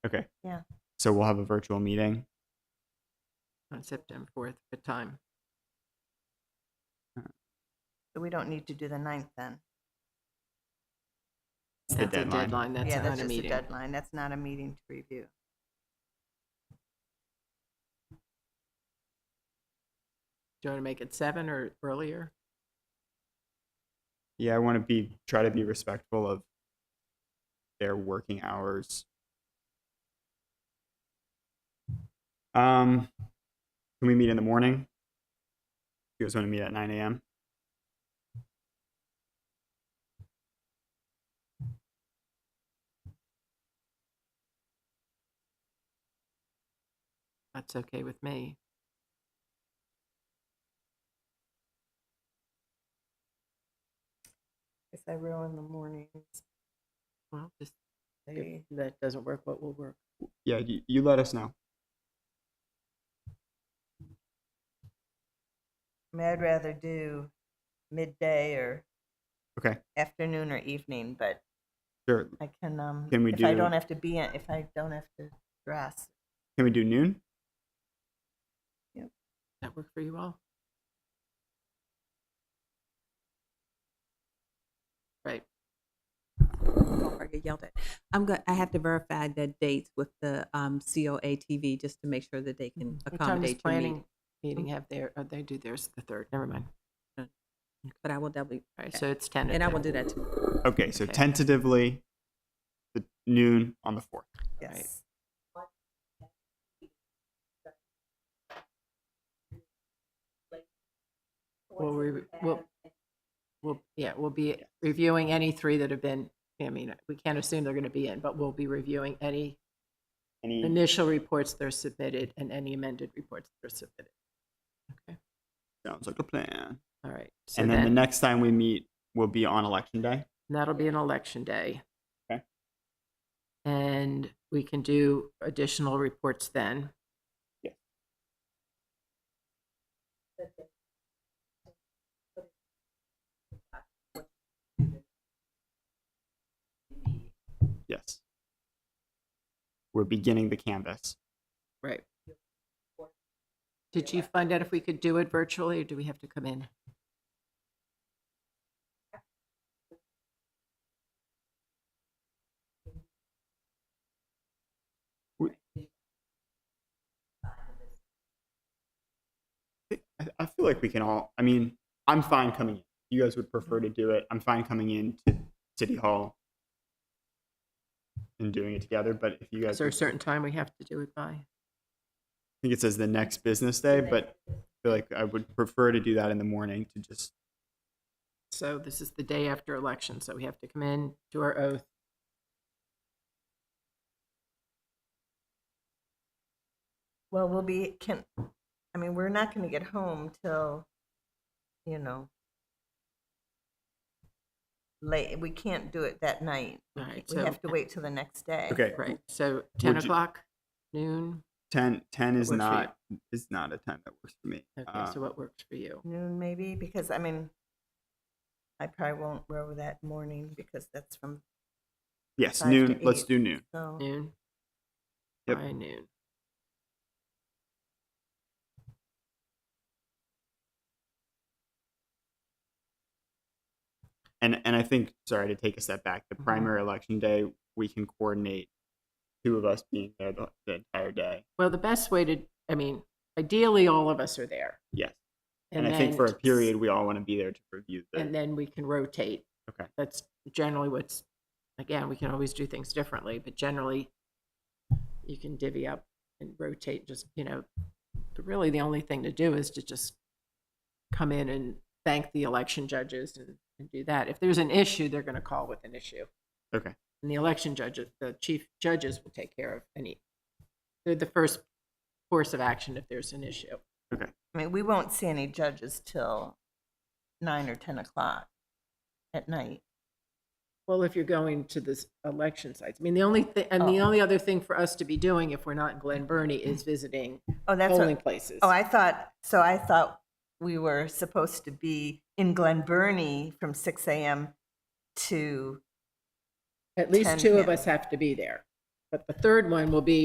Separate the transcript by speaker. Speaker 1: Okay.
Speaker 2: Yeah.
Speaker 1: So we'll have a virtual meeting.
Speaker 3: on September fourth, what time?
Speaker 2: So we don't need to do the ninth then.
Speaker 1: It's the
Speaker 3: That's a
Speaker 1: deadline.
Speaker 3: deadline, that's
Speaker 2: Yeah,
Speaker 3: not
Speaker 2: that's
Speaker 3: a
Speaker 2: just a
Speaker 3: meeting.
Speaker 2: deadline. That's not a meeting to review.
Speaker 3: Do you want to make it seven or earlier?
Speaker 1: Yeah, I want to be try to be respectful of their working hours. Um, can we meet in the morning? You guys want to meet at nine a.m.
Speaker 3: That's okay with me.
Speaker 2: If I ruin the mornings,
Speaker 3: Well, just, if
Speaker 2: they,
Speaker 3: that doesn't work, what will work?
Speaker 1: Yeah, you, you let us know.
Speaker 2: I mean, I'd rather do midday or
Speaker 1: Okay,
Speaker 2: afternoon or evening, but
Speaker 1: sure.
Speaker 2: I can, um,
Speaker 1: Can we
Speaker 2: if I
Speaker 1: do-
Speaker 2: don't have to be in, if I don't have to dress.
Speaker 1: Can we do noon?
Speaker 3: That work for you all? Right,
Speaker 4: Don't forget, get yelled at. I'm going, I have to verify the dates with the um, COA TV just to make sure that they can
Speaker 3: Mm-hmm. what time is
Speaker 4: accommodate your meeting.
Speaker 3: planning meeting have their, oh, they do theirs the third, never mind.
Speaker 4: But I will doubly,
Speaker 3: All right, so it's ten.
Speaker 4: and I will do that too.
Speaker 1: Okay, so
Speaker 3: Okay.
Speaker 1: tentatively, the noon on the fourth.
Speaker 3: Right.
Speaker 2: Yes.
Speaker 3: Well, we, we'll, we'll, yeah, we'll be reviewing any three that have been, I mean, we can't assume they're going to be in, but we'll be reviewing any
Speaker 1: Any,
Speaker 3: initial reports that are submitted and any amended reports that are submitted. Okay,
Speaker 1: sounds like a plan.
Speaker 3: all right. So
Speaker 1: And then the next time we meet will be on election day.
Speaker 3: That'll be an election day.
Speaker 1: Okay.
Speaker 3: And we can do additional reports then.
Speaker 1: Yeah. Yes. We're beginning the canvas.
Speaker 3: Right. Did you find out if we could do it virtually or do we have to come in?
Speaker 1: I, I feel like we can all. I mean, I'm fine coming in. You guys would prefer to do it. I'm fine coming in to City Hall and doing it together. But if you
Speaker 3: Is
Speaker 1: guys,
Speaker 3: there
Speaker 1: are,
Speaker 3: a certain time we have to do it by?
Speaker 1: I think it says the next business day, but I feel like I would prefer to do that in the morning to just
Speaker 3: So this is the day after election, so we have to come in, do our oath.
Speaker 2: Well, we'll be, can, I mean, we're not gonna get home till, you know, late, we can't do it that night.
Speaker 3: All right,
Speaker 2: We
Speaker 3: so,
Speaker 2: have to wait till the next day.
Speaker 1: okay.
Speaker 3: right, so 10
Speaker 1: Would you-
Speaker 3: o'clock, noon?
Speaker 1: 10, 10 is
Speaker 3: Works for you.
Speaker 1: not is not a time that works for me.
Speaker 3: Okay,
Speaker 1: Uh,
Speaker 3: so what works for you?
Speaker 2: Noon maybe, because I mean, I probably won't row that morning because that's from,
Speaker 1: yes,
Speaker 2: five to
Speaker 1: noon. Let's
Speaker 2: eight.
Speaker 1: do noon.
Speaker 2: so.
Speaker 3: Noon?
Speaker 1: Yep.
Speaker 3: By noon.
Speaker 1: And and I think sorry to take a step back. The
Speaker 3: Mhm.
Speaker 1: primary election day we can coordinate two of us being there the, the entire day.
Speaker 3: Well, the best way to, I mean, ideally, all of us are there.
Speaker 1: Yes. And, I think
Speaker 3: then
Speaker 1: for a
Speaker 3: s-
Speaker 1: period, we all want to be there to review the
Speaker 3: And then we can rotate.
Speaker 1: Okay.
Speaker 3: That's generally what's, again, we can always do things differently, but generally, you can divvy up and rotate, just, you know, but really, the only thing to do is to just come in and thank the election judges and, and do that. If there's an issue, they're gonna call with an issue.
Speaker 1: Okay.
Speaker 3: And the election judges, the chief judges will take care of any, they're the first course of action if there's an issue.
Speaker 2: I mean, we won't see any judges till nine or ten o'clock at night.
Speaker 3: Well, if you're going to this election sites, I mean, the only thing, and the
Speaker 2: Oh.
Speaker 3: only other thing for us to be doing if we're not in Glen Burnie is visiting
Speaker 2: Oh, that's
Speaker 3: polling
Speaker 2: what,
Speaker 3: places.
Speaker 2: oh, I thought, so I thought we were supposed to be in Glen Burnie from six AM to,
Speaker 3: At least
Speaker 2: 10
Speaker 3: two of
Speaker 2: p.m.
Speaker 3: us have to be there. But the third one will be